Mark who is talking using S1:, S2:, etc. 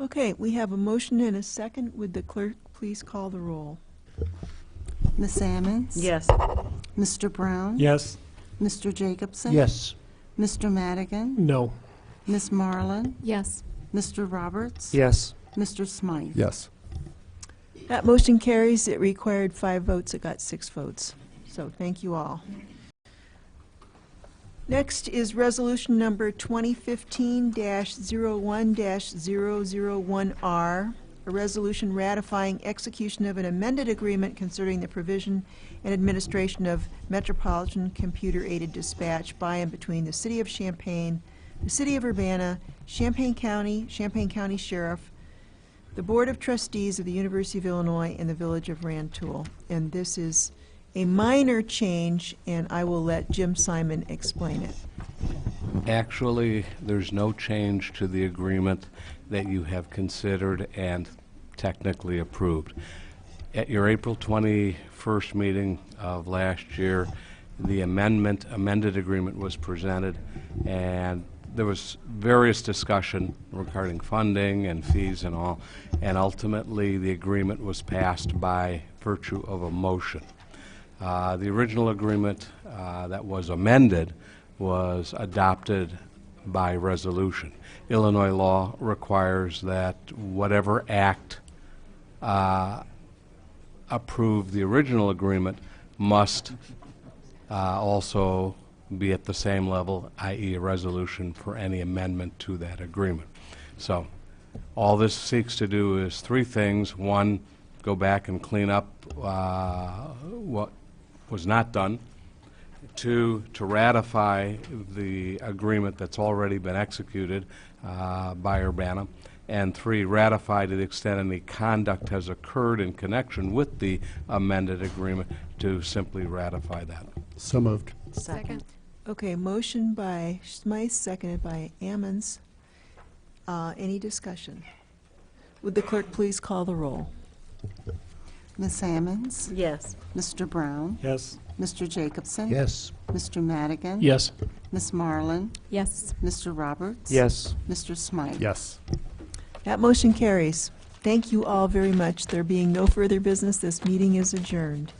S1: Okay, we have a motion and a second. Would the clerk please call the roll?
S2: Ms. Ammons?
S1: Yes.
S2: Mr. Brown?
S3: Yes.
S2: Mr. Jacobson?
S3: Yes.
S2: Mr. Madigan?
S3: No.
S2: Ms. Marlin?
S4: Yes.
S2: Mr. Roberts?
S3: Yes.
S2: Mr. Smythe?
S5: Yes.
S1: That motion carries. It required five votes. It got six votes. So thank you all. Next is resolution number 2015-01-001R, a resolution ratifying execution of an amended agreement concerning the provision and administration of metropolitan computer-aided dispatch by and between the City of Champaign, the City of Urbana, Champaign County, Champaign County Sheriff, the Board of Trustees of the University of Illinois and the Village of Rantoul. And this is a minor change, and I will let Jim Simon explain it.
S6: Actually, there's no change to the agreement that you have considered and technically approved. At your April 21st meeting of last year, the amendment, amended agreement was presented, and there was various discussion regarding funding and fees and all, and ultimately, the agreement was passed by virtue of a motion. Uh, The original agreement uh, that was amended was adopted by resolution. Illinois law requires that whatever act uh, approved the original agreement must uh, also be at the same level, i.e. a resolution for any amendment to that agreement. So, all this seeks to do is three things. One, go back and clean up uh, what was not done. Two, to ratify the agreement that's already been executed uh, by Urbana. And three, ratify to the extent any conduct has occurred in connection with the amended agreement to simply ratify that.
S5: So moved.
S4: Second.
S1: Okay, motion by Smythe, seconded by Ammons. Uh, Any discussion? Would the clerk please call the roll?
S2: Ms. Ammons?
S7: Yes.
S2: Mr. Brown?
S3: Yes.
S2: Mr. Jacobson?
S5: Yes.
S2: Mr. Madigan?
S3: Yes.
S2: Ms. Marlin?
S4: Yes.
S2: Mr. Roberts?
S3: Yes.
S2: Mr. Smythe?
S5: Yes.
S1: That motion carries. Thank you all very much. There being no further business, this meeting is adjourned.